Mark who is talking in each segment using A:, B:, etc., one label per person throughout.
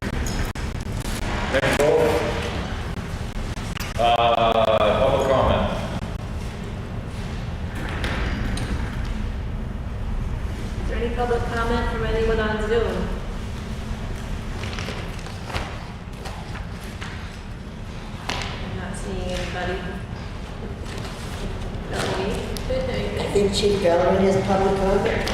A: Uh,
B: the chief going in his public comment?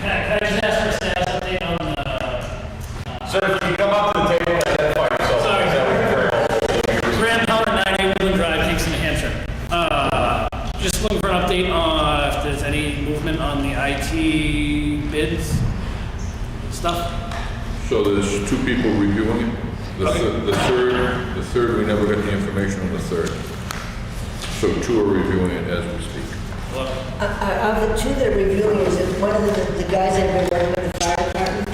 C: Can I, can I just ask for a status update on the, uh,
A: Sir, if you come up to the table, identify yourself.
C: Sorry.
A: Is that what you're-
C: Graham Howard, 98 Woodland Drive, Kingston, New Hampshire. Uh, Just looking for an update on if there's any movement on the IT bids stuff.
D: So there's two people reviewing it. The
C: Okay.
D: thir- the third, the third, we never got any information on the third. So two are reviewing it as we speak.
C: Hello?
B: Uh, uh, Of the two that are reviewing, is it one of the the guys that have been working with the fire department?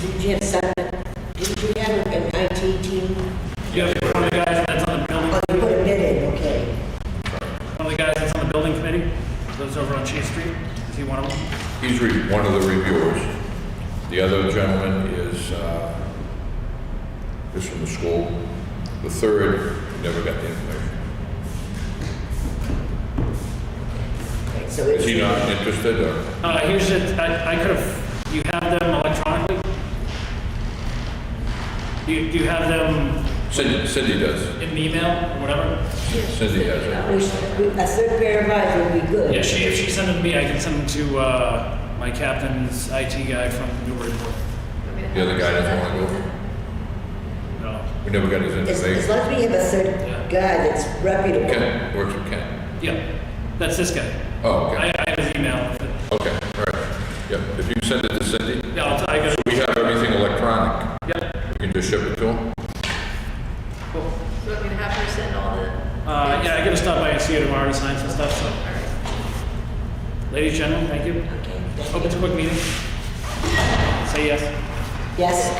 B: Did you have some, did you have an IT team?
C: You have one of the guys that's on the building,
B: Oh, you put a bid in, okay.
C: one of the guys that's on the building committee, lives over on Chase Street. Is he one of them?
D: He's re- one of the reviewers. The other gentleman is, uh, is from the school. The third, we never got the information.
B: Okay, So
D: Is he
B: it's,
D: not interested or?
C: Uh, here's it, I, I could have, you have them electronically? Do you, do you have them
D: Cindy, Cindy does.
C: in an email or whatever?
D: Cindy has it.
B: we should- we- a third pair of eyes would be good.
C: Yeah, she, if she sends them to me, I can send them to, uh, my captain's IT guy from Newburyport.
D: The other guy doesn't want to go.
C: No.
D: We never got his
B: As as
D: information. Oh,
B: long as we have a third guy that's reputable.
D: Ken, works with Ken.
C: Yeah, that's this guy.
D: Oh, okay.
C: I, I have his email. but-
D: Okay, all right. Yep, if you send it to Cindy,
C: Yeah, I'll, I got it.
D: we have everything electronic.
C: Yeah,
D: We can just ship it to them.
C: cool.
E: So I'm gonna have her send all the.
C: Uh, yeah, I gotta stop by and see her tomorrow to sign some stuff, so. Ladies, gentlemen, thank you. Hope it's a quick meeting. Say yes.
B: Yes?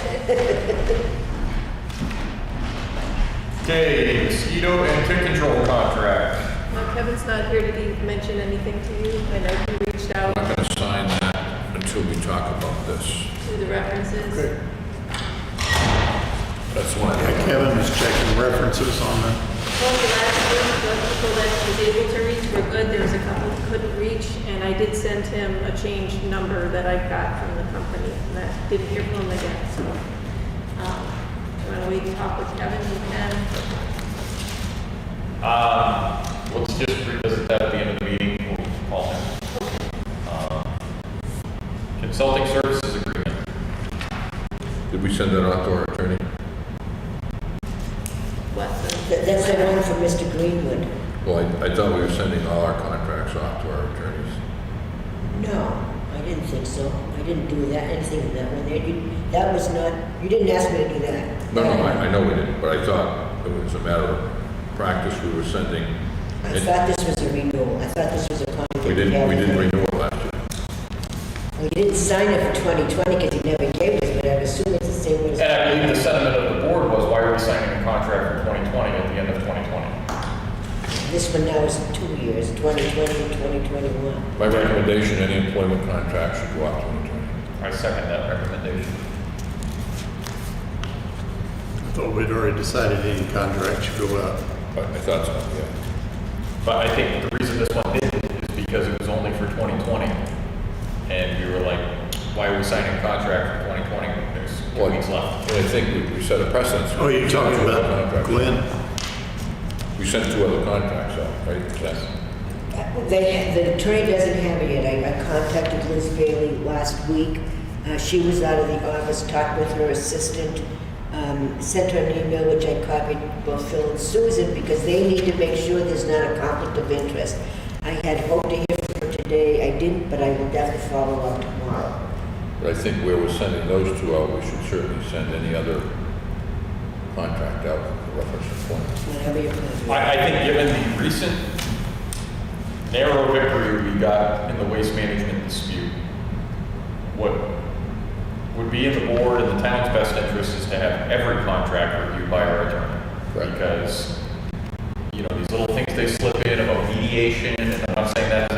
A: Okay, mosquito and tick control contract.
E: Well, Kevin's not here, did he mention anything to you? I know he reached out
D: I'm not going to sign that until we talk about this.
E: to the references.
D: That's one of the...
F: Kevin is checking references on the
E: Well, the last week, the people that he was able to reach were good, there was a couple that couldn't reach, and I did send him a changed number that I got from the company, and that didn't hear from him again, so. um, Why don't we talk with Kevin, you can,
A: Um, let's just revisit that at the end of the meeting, we'll call him. Um, Consulting services agreement.
D: Did we send that out to our attorney?
E: what the.
B: That- That's the one for Mr. Greenwood.
D: Well, I- I thought we were sending all our contracts off to our attorneys.
B: No, I didn't think so. I didn't do that, anything in that one. There, you- That was not, you didn't ask me to do that.
D: No, no, I I know we didn't, but I thought it was a matter of practice we were sending.
B: I thought this was a renewal. I thought this was a contract.
D: We didn't, we didn't renew it last year.
B: We didn't sign it for 2020 because he never gave us, but I assume it's the same one as...
A: And I believe the sentiment of the board was, why are we signing a contract for 2020 at the end of 2020?
B: This one now is two years, 2020 and 2021.
D: My recommendation, any employment contract should go out to an attorney.
A: I second that recommendation.
F: I thought we'd already decided any contract should go out.
D: But I thought so, yeah.
A: But I think the reason this one didn't is because it was only for 2020. And we were like, why are we signing a contract for 2020 when there's
D: Well,
A: two weeks left?
D: And I think we- we set a precedence.
F: Oh, you're talking about
D: Contract.
F: Glenn?
D: We sent two other contracts out, right? Yes.
B: They, the attorney doesn't have it yet. I I contacted Liz Bailey last week. Uh, She was out of the office, talked with her assistant, um, sent her an email, which I copied both Phil and Susan, because they need to make sure there's not a conflict of interest. I had hoped to hear from her today. I didn't, but I will definitely follow up tomorrow.
D: But I think where we're sending those two out, we should certainly send any other contract out for reference employment.
B: Whenever you're ready.
A: I, I think given the recent narrow victory we got in the waste management dispute, what would be in the board and the town's best interest is to have every contract reviewed by our attorney.
D: Right.
A: Because, you know, these little things they slip in about mediation, and I'm not saying that's